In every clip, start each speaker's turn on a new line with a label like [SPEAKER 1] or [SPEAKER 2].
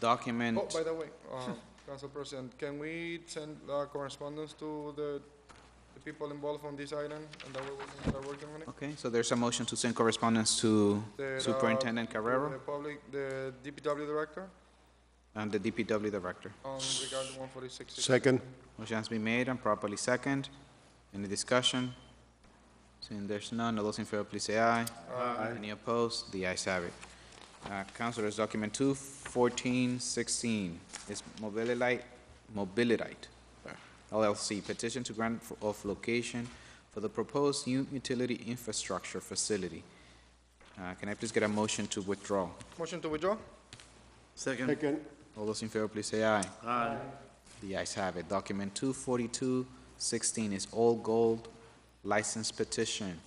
[SPEAKER 1] document.
[SPEAKER 2] Oh, by the way, uh, Council President, can we send uh, correspondence to the the people involved on this island, and that way we can start working on it?
[SPEAKER 1] Okay, so there's a motion to send correspondence to
[SPEAKER 2] The, uh,
[SPEAKER 1] Superintendent Carrero
[SPEAKER 2] The public, the DPW Director,
[SPEAKER 1] and the DPW Director.
[SPEAKER 2] um, regarding 146.
[SPEAKER 3] Second.
[SPEAKER 1] Motion has been made and properly second. Any discussion? Seeing there's none, all those in favor, please say aye. Aye. Any opposed? The ayes have it. Uh, Councilors, document two fourteen sixteen is Mobililite, Mobililite uh, LLC petition to grant for- of location for the proposed new utility infrastructure facility. Uh, can I please get a motion to withdraw?
[SPEAKER 2] Motion to withdraw?
[SPEAKER 4] Second.
[SPEAKER 3] Second.
[SPEAKER 1] All those in favor, please say aye.
[SPEAKER 4] Aye.
[SPEAKER 1] The ayes have it. Document two forty-two sixteen is all gold license petition.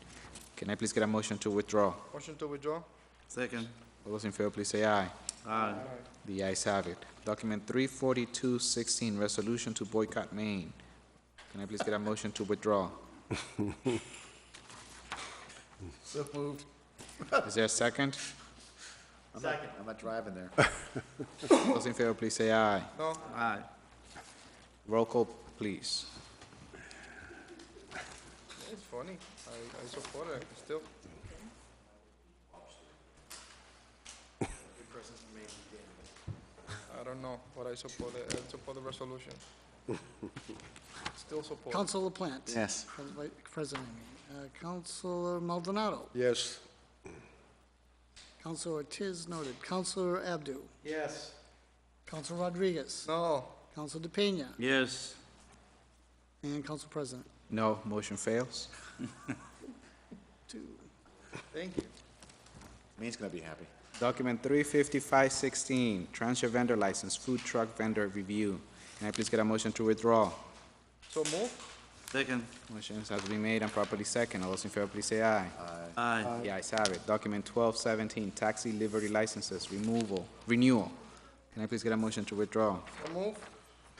[SPEAKER 1] Can I please get a motion to withdraw?
[SPEAKER 2] Motion to withdraw?
[SPEAKER 4] Second.
[SPEAKER 1] All those in favor, please say aye.
[SPEAKER 4] Aye.
[SPEAKER 1] The ayes have it. Document three forty-two sixteen, resolution to boycott Maine. Can I please get a motion to withdraw?
[SPEAKER 4] So moved.
[SPEAKER 1] Is there a second?
[SPEAKER 4] Second. I'm not driving there.
[SPEAKER 1] All Those in favor, please say aye.
[SPEAKER 2] No?
[SPEAKER 4] Aye.
[SPEAKER 1] Roll call, please.
[SPEAKER 2] It's funny. I, I support it still. I don't know, but I support it. I support the resolution. Still support.
[SPEAKER 5] Councilor Plant.
[SPEAKER 4] Yes.
[SPEAKER 5] Pres- Vice President, I mean. Uh, Councilor Maldonado.
[SPEAKER 3] Yes.
[SPEAKER 5] Councilor Ortiz noted. Councilor Abdu.
[SPEAKER 4] Yes.
[SPEAKER 5] Councilor Rodriguez.
[SPEAKER 2] No,
[SPEAKER 5] Councilor DePena.
[SPEAKER 4] Yes.
[SPEAKER 5] And Council President.
[SPEAKER 1] No, motion fails.
[SPEAKER 5] Two.
[SPEAKER 2] thank you.
[SPEAKER 4] Means gonna be happy.
[SPEAKER 1] Document three fifty-five sixteen, transfer vendor license, food truck vendor review. Can I please get a motion to withdraw?
[SPEAKER 2] So move?
[SPEAKER 4] Second.
[SPEAKER 1] Motion has been made and properly second. All those in favor, please say aye.
[SPEAKER 4] Aye.
[SPEAKER 1] The ayes have it. Document twelve seventeen, taxi livery licenses, removal, renewal. Can I please get a motion to withdraw?
[SPEAKER 2] So move?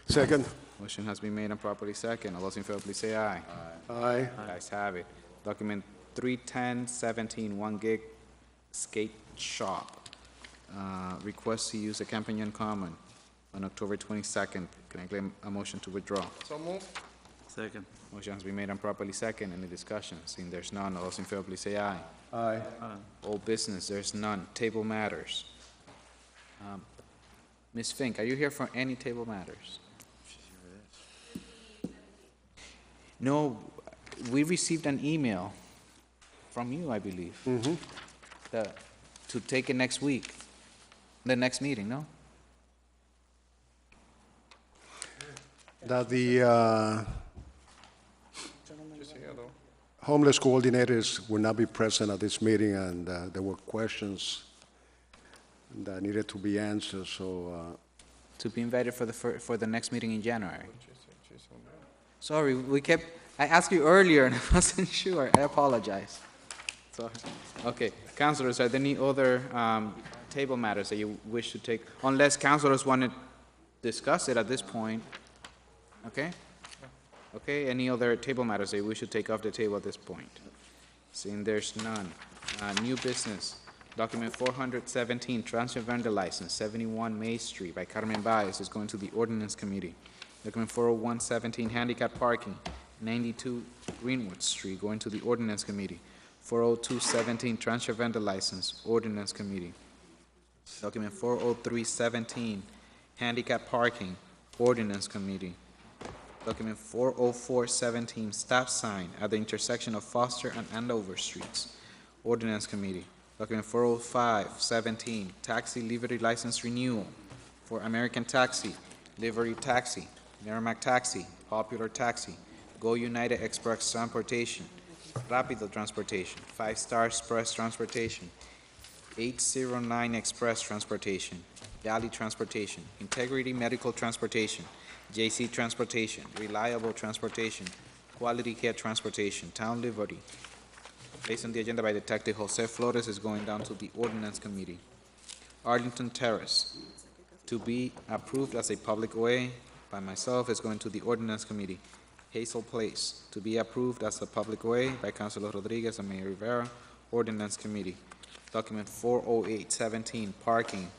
[SPEAKER 3] Second.
[SPEAKER 1] Motion has been made and properly second. All those in favor, please say aye.
[SPEAKER 3] Aye.
[SPEAKER 1] The ayes have it. Document three ten seventeen, one gig skate shop. Uh, request to use the Campanian Common on October twenty-second. Can I get a motion to withdraw?
[SPEAKER 2] So move?
[SPEAKER 4] Second.
[SPEAKER 1] Motion has been made and properly second. Any discussion? Seeing there's none, all those in favor, please say aye.
[SPEAKER 3] Aye.
[SPEAKER 1] Old business, there's none. Table matters. Um, Ms. Fink, are you here for any table matters? No, we received an email from you, I believe. that- To take it next week, the next meeting, no?
[SPEAKER 3] That the uh,
[SPEAKER 2] Just here though.
[SPEAKER 3] homeless coordinators will not be present at this meeting, and uh, there were questions that needed to be answered, so uh,
[SPEAKER 1] To be invited for the, fir- for the next meeting in January.
[SPEAKER 2] She's, she's on there.
[SPEAKER 1] Sorry, we kept, I asked you earlier and I wasn't sure. I apologize. Sorry. Okay, councilors, are there any other um, table matters that you wish to take? Unless councilors want to discuss it at this point, okay? Okay, any other table matters that we should take off the table at this point? Seeing there's none. Uh, New business, document 417, transfer vendor license, 71 May Street by Carmen Baez is going to the ordinance committee. Document 40117, handicap parking, 92 Greenwood Street, going to the ordinance committee. 40217, transfer vendor license, ordinance committee. Document 40317, handicap parking, ordinance committee. Document 40417, stop sign at the intersection of Foster and Andover Streets, ordinance committee. Document 40517, taxi livery license renewal for American Taxi, Livery Taxi, Merrimack Taxi, Popular Taxi, Go United Express Transportation, Rapido Transportation, Five Star Express Transportation, 809 Express Transportation, Valley Transportation, Integrity Medical Transportation, JC Transportation, Reliable Transportation, Quality Care Transportation, Town Liberty. Based on the agenda by Detective Jose Flores is going down to the Ordinance Committee. Arlington Terrace, to be approved as a public way by myself is going to the Ordinance Committee. Hazel Place, to be approved as a public way by Councilor Rodriguez and Mayor Rivera, Ordinance Committee. Document 40817, parking,